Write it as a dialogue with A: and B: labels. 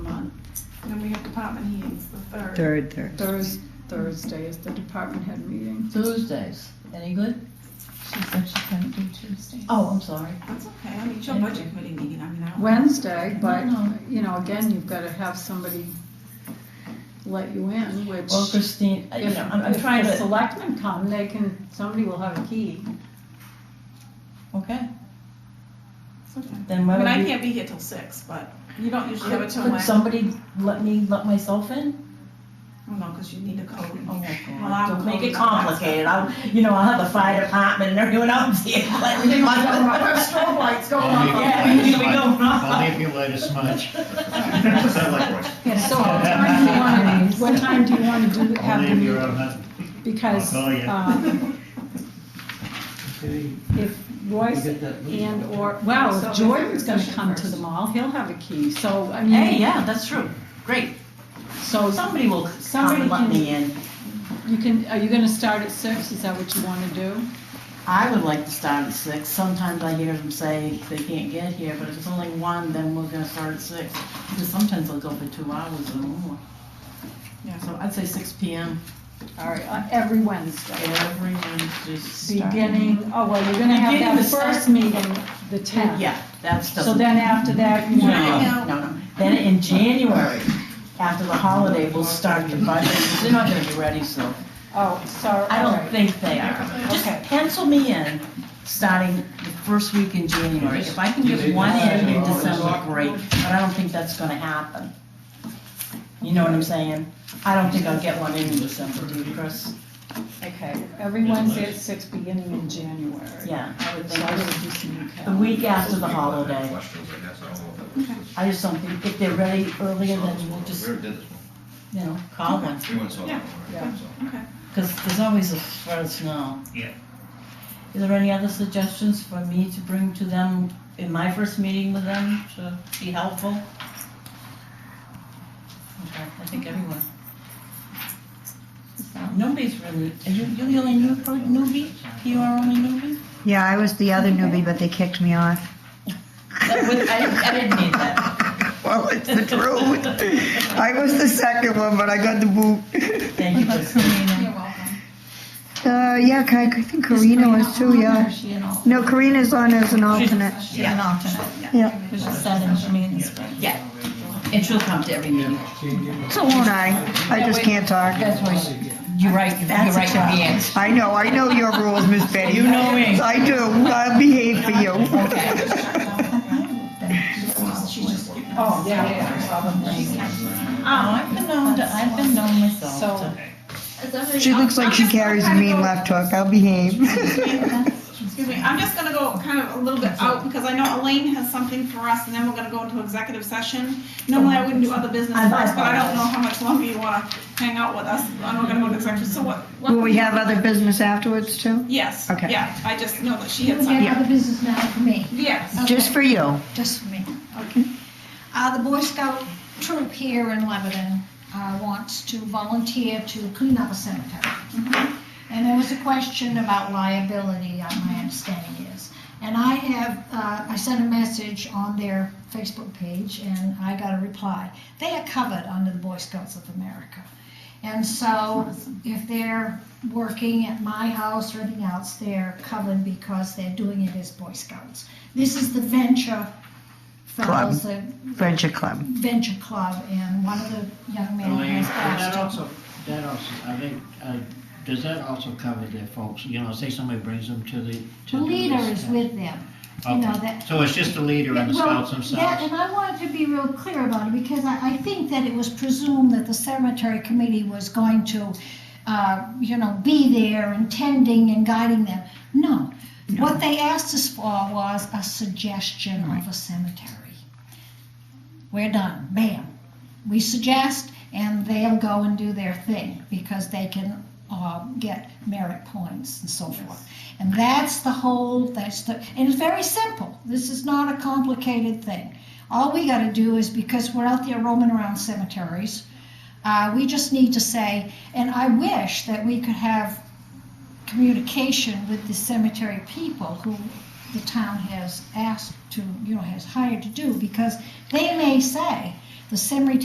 A: Then we have department heads, the third.
B: Third, third.
C: Thurs, Thursday is the department head meeting.
D: Tuesdays, any good?
E: She said she couldn't do Tuesday.
D: Oh, I'm sorry.
A: That's okay, I mean, it's your budget committee meeting, I mean, I don't.
C: Wednesday, but,
D: No.
C: you know, again, you've gotta have somebody let you in, which.
D: Well, Christine, uh, you
C: If,
D: know, I'm, I'm
C: if
D: trying
C: the
D: to,
C: selectmen come, they can, somebody will have a key.
D: okay,
A: It's okay.
D: then
A: I
D: why
A: mean, I
D: don't you?
A: can't be here till six, but you don't usually have
D: Could
A: it till
D: could
A: when?
D: somebody let me, let myself in?
A: Oh, no, because you need a code.
D: Oh, my
A: Well, I'll
D: God, don't make
A: call
D: it
A: the-
D: complicated, I'll, you know, I'll have the fire department and everyone else here. like,
C: They don't
D: my-
C: have strobe lights going
F: Only if you
C: on.
F: light
D: Yeah,
F: as
D: here we
F: much.
D: go.
F: Only if you light as much. What's that like, Royce?
C: Yeah, so what time do you wanna, what time do you wanna do, have
F: Only
C: the
F: if you're
C: meeting?
F: on that.
C: Because,
F: I'll call you.
C: um,
G: Okay,
C: if
G: you
C: Royce
G: get that lead.
C: and or, well, if Jordan's gonna come to the mall, he'll have a key, so, I mean.
D: Hey, yeah, that's true, great,
C: So
D: somebody will come
C: Somebody
D: and let
C: can-
D: me in.
C: you can, are you gonna start at six, is that what you wanna do?
D: I would like to start at six. Sometimes I hear them say they can't get here, but if it's only one, then we're gonna start at six. Because sometimes they'll go for two hours or more.
A: Yeah.
D: So I'd say six P M
C: All right, uh, every Wednesday,
D: every Wednesday.
C: beginning, oh, well, you're gonna have
D: Beginning
C: that
D: the start-
C: first meeting, the tenth.
D: Yeah, that's the.
C: So then after that, you
D: No,
C: wanna,
D: no, no. Then in January, after the holiday, we'll start your budget. They're not gonna be ready, so
C: oh, sorry,
D: I
C: all
D: don't
C: right.
D: think they are. Just
C: Okay.
D: pencil me in, starting the first week in January. If I can get one in in December, great, but I don't think that's gonna happen. You know what I'm saying? I don't think I'll get one in in December, do you, Chris?
C: Okay, every Wednesday at six, beginning in January.
D: Yeah, I would
C: So
D: think
C: I would
D: just
C: do some
D: the
C: recap.
D: week after the holiday.
H: Questions, I guess, I don't know if that was-
D: I just don't think, if they're ready earlier, then we'll just,
H: We already did this one.
D: you know, call them.
H: We went saw that one,
C: Yeah.
H: right? So-
A: Okay.
D: Because there's always a first now.
F: Yeah.
D: Is there any other suggestions for me to bring to them in my first meeting with them to be helpful? Okay, I think everyone. Nobody's really, are you, you're the only new, per- newbie? You are only newbie?
B: Yeah, I was the other newbie, but they kicked me off.
D: That would- I, I didn't mean that.
B: Well, it's the truth. I was the second one, but I got the boot.
D: Thank you,
E: But
D: Kristen.
E: Karina.
A: You're welcome.
B: Uh, yeah, I I think
E: Is
B: Karina was too,
E: on or
B: yeah.
E: is she an alternate?
B: No, Karina's on as an alternate.
E: She's an alternate.
B: Yeah.
E: There's a set in Jermaine's place.
D: Yeah, and she'll come to every meeting.
B: So won't I. I just can't talk.
E: That's why she,
D: You're right, you're
E: That's a
D: right,
E: problem.
D: Leanne.
B: I know, I know your rules, Miss Betty.
D: You know me.
B: I do. I behave for you.
C: Oh, yeah, yeah, probably.
D: Oh, I've been known, to- I've been known myself
C: So-
D: to-
B: She looks like she carries a mean left hook. I'll behave.
A: Excuse me, I'm just gonna go kind of a little bit out, because I know Elaine has something for us, and then we're gonna go into executive session. Normally, I wouldn't do other business
D: I- I
A: first, but I don't know
D: apologize.
A: how much longer you wanna hang out with us, and we're gonna go into executive, so what,
B: Will we have other business afterwards too?
A: yes,
B: Okay.
A: yeah, I just know that she
E: you
A: had
E: can
A: something.
E: get out of business now for me,
A: Yes.
B: Just for you.
E: just for me. Uh, the Boy Scout troop here in Lebanon, uh, wants to volunteer to clean up a cemetery. And there was a question about liability, uh, my understanding is. And I have, uh, I sent a message on their Facebook page and I got a reply. They are covered under the Boy Scouts of America. And so if they're working at my house or anything else, they're covered because they're doing it as Boy Scouts. This is the venture fellows, the
B: Venture Club.
E: venture club, and one of the young men
G: Elaine,
E: has
G: that
E: asked.
G: also, that also, I think, uh, does that also cover their folks, you know, say somebody brings them to the, to
E: The
G: do
E: leader
G: this?
E: is with them. you know,
G: Okay,
E: that-
G: so it's just the leader and the
E: Well,
G: scouts
E: Yeah,
G: themselves?
E: and I wanted to be real clear about it, because I, I think that it was presumed that the cemetery committee was going to, uh, you know, be there and tending and guiding them. No. What they asked us for was a suggestion of a cemetery. We're done, bam. We suggest, and they'll go and do their thing, because they can, uh, get merit points and so forth. And that's the whole, that's the, and it's very simple. This is not a complicated thing. All we gotta do is, because we're out there roaming around cemeteries, uh, we just need to say, and I wish that we could have communication with the cemetery people who the town has asked to, you know, has hired to do, because they may say, the cemetery